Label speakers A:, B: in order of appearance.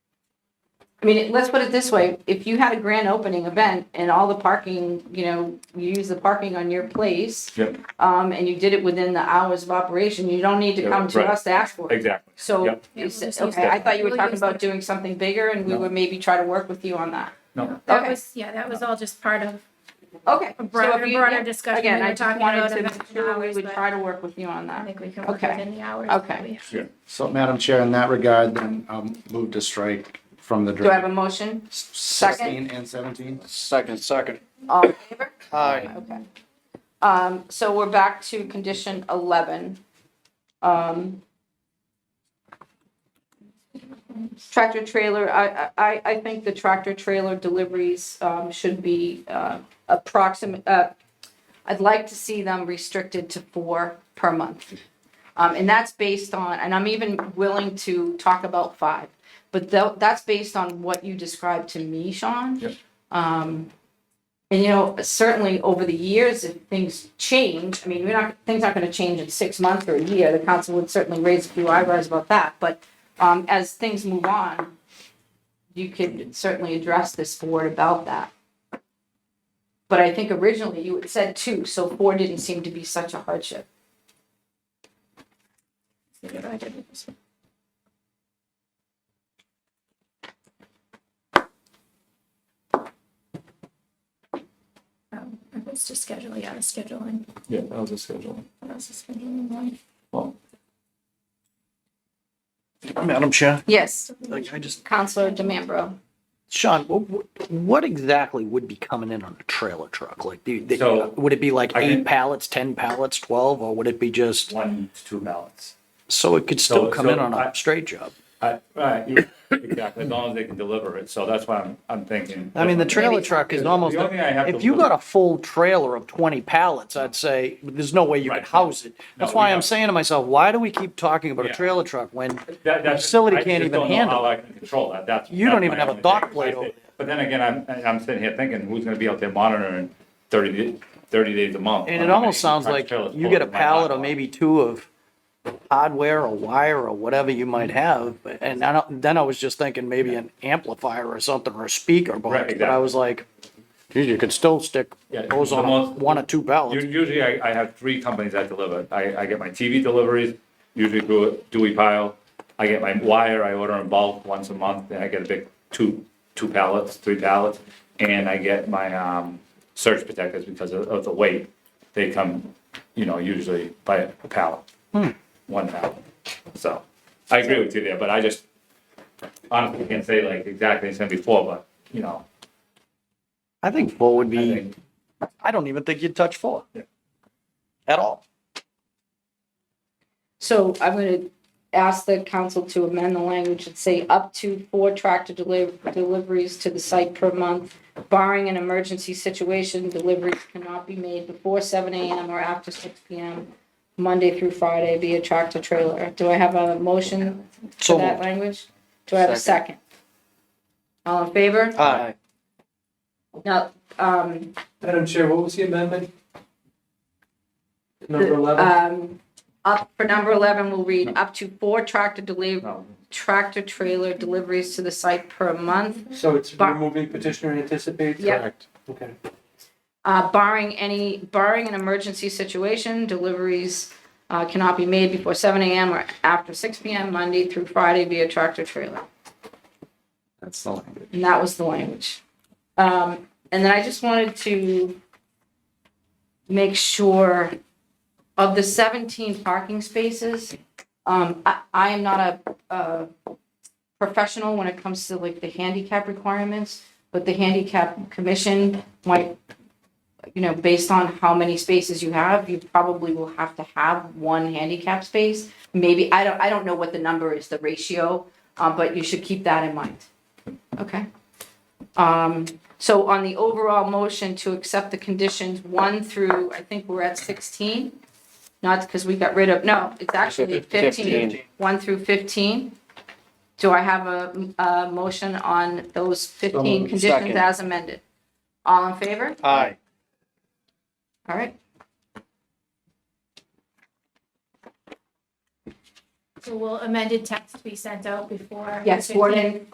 A: I mean, let's put it this way, if you had a grand opening event and all the parking, you know, you use the parking on your place.
B: Yep.
A: Um, and you did it within the hours of operation, you don't need to
B: Yeah,
A: come to
B: right.
A: us to ask for it.
B: Exactly.
A: So,
B: Yep.
A: you said-
C: Yeah, we'll just
A: okay, I
C: use
A: thought you were
C: that.
A: talking
C: We'll
A: about
C: use
A: doing something bigger and we
B: No.
A: would maybe try to work with you on that.
B: No,
C: That
A: Okay.
C: was, yeah, that was all just part of
A: Okay.
C: a
A: so if
C: broader,
A: you- yeah,
C: broader discussion
A: Again,
C: we
A: I
C: were
A: just
C: talking
A: wanted
C: about
A: to
C: events
A: make
C: and
A: sure we
C: hours,
A: would
C: but
A: try to work with you on
C: I
A: that.
C: think we can work
A: Okay.
C: within the hours.
A: Okay.
C: that we have.
B: yeah.
D: So, Madam Chair, in that regard, then I'll move to strike from the.
A: Do I have a motion?
D: Sixteen and seventeen?
E: Second, second.
A: All in favor?
E: Aye.
A: Okay. Um, so we're back to condition eleven. Um. Tractor trailer, I, I- I, I think the tractor trailer deliveries, um, should be, uh, approximate, uh, I'd like to see them restricted to four per month. Um, and that's based on, and I'm even willing to talk about five, but tho- that's based on what you described to me, Sean.
B: Yep.
A: Um, and you know, certainly over the years, if things change, I mean, we're not, things aren't gonna change in six months or a year, the council would certainly raise a few eyebrows about that, but um, as things move on, you could certainly address this board about that. But I think originally you had said two, so four didn't seem to be such a hardship.
C: See what I did with this one. Um, It was just schedule, yeah, the scheduling.
B: Yeah, that was a schedule.
C: What else is scheduling? one?
E: Madam Chair,
A: Yes,
E: like I just,
A: Counselor DeMambro.
E: Sean, what, what exactly would be coming in on a trailer truck? Like, do, do-
B: So,
E: would it be like
B: I
E: eight
B: can-
E: pallets, ten pallets, twelve, or would it be just,
B: One to two ballots.
E: so it could still
B: So-
E: come in
B: so
E: on
B: I-
E: a straight job?
B: I, I, you- exactly, as long as they can deliver it, so that's why I'm, I'm thinking.
E: I mean, the trailer
A: Maybe.
E: truck is
B: The
E: almost,
B: only thing I have
E: if
B: to
E: you
B: look-
E: got a full trailer of twenty pallets, I'd say, there's no way you could
B: Right.
E: house it.
B: No,
E: That's
B: we
E: why I'm
B: don't.
E: saying to myself, why do we keep talking about a
B: Yeah.
E: trailer truck when
B: That, that's.
E: Facility
B: I just
E: can't even
B: don't know
E: handle
B: How I can control that, that's.
E: You don't
B: that's
E: even
B: my
E: have a
B: only
E: dock
B: thing.
E: plate over there.
B: But then again, I'm, I'm sitting here thinking, who's gonna be out there monitoring thirty, di- 30 days a month?
E: And
B: I'm
E: it
B: not
E: almost
B: gonna
E: sounds like
B: trailers
E: you get a
B: full of my
E: pallet or
B: backlog.
E: maybe two of hardware or wire or whatever you
B: Hmm.
E: might have. but- And I don't, then I was just thinking maybe an amplifier or something or a speaker
B: Right,
E: box, but I
B: exactly.
E: was like, geez, you could still stick
B: Yeah,
E: those
B: the
E: on
B: most-
E: one or two pallets.
B: U- Usually I, I have three companies that deliver. I, I get my TV deliveries, usually through Dewey Pile. I get my wire, I order in bulk once a month, and I get a big two, two pallets, three pallets. And I get my, um, surge protectors because of, of the weight. They come, you know, usually by a pallet. One pallet. So I agree with you there, but I just honestly can't say like exactly it's gonna be four, but you know,
E: I think four would
B: I
E: be,
B: think,
E: I don't even think you'd touch four
B: Yeah.
E: at all.
A: So I'm gonna ask the council to amend the language and say up to four tractor deli- deliveries to the site per month. Barring an emergency situation, deliveries cannot be made before seven AM or after six PM, Monday through Friday via tractor trailer. Do I have a motion for
E: So
A: that
E: moved.
A: language? Do I have a second? All in favor?
E: Aye.
A: Now, um,
F: Madam Chair, what was the amendment? Number eleven?
A: um, up, for number eleven, we'll read up to four tractor deliveries.
B: no,
A: tractor trailer deliveries to the site per month,
F: So it's
A: uh, Bar-
F: removing petitioner anticipates?
A: Yep.
F: Correct. Okay.
A: uh, barring any, barring an emergency situation, deliveries uh, cannot be made before seven AM or after six PM, Monday through Friday via tractor trailer.
D: That's the language.
A: And that was the language. Um, and then I just wanted to make sure of the seventeen parking spaces, um, I, I am not a, a professional when it comes to like the handicap requirements, but the handicap commission might, you know, based on how many spaces you have, you probably will have to have one handicap space. Maybe, I don't, I don't know what the number is, the ratio, uh, but you should keep that in mind. Okay. Um, so on the overall motion to accept the conditions one through, I think we're at sixteen. Not because we got rid of, no, it's actually fifteen, one through fifteen. Do I have a, a motion on those fifteen conditions
E: Second.
A: as amended? All in favor?
E: Aye.
A: All right.
C: So will amended text be sent out before?
A: Yes,
C: the 15th?
A: Warden,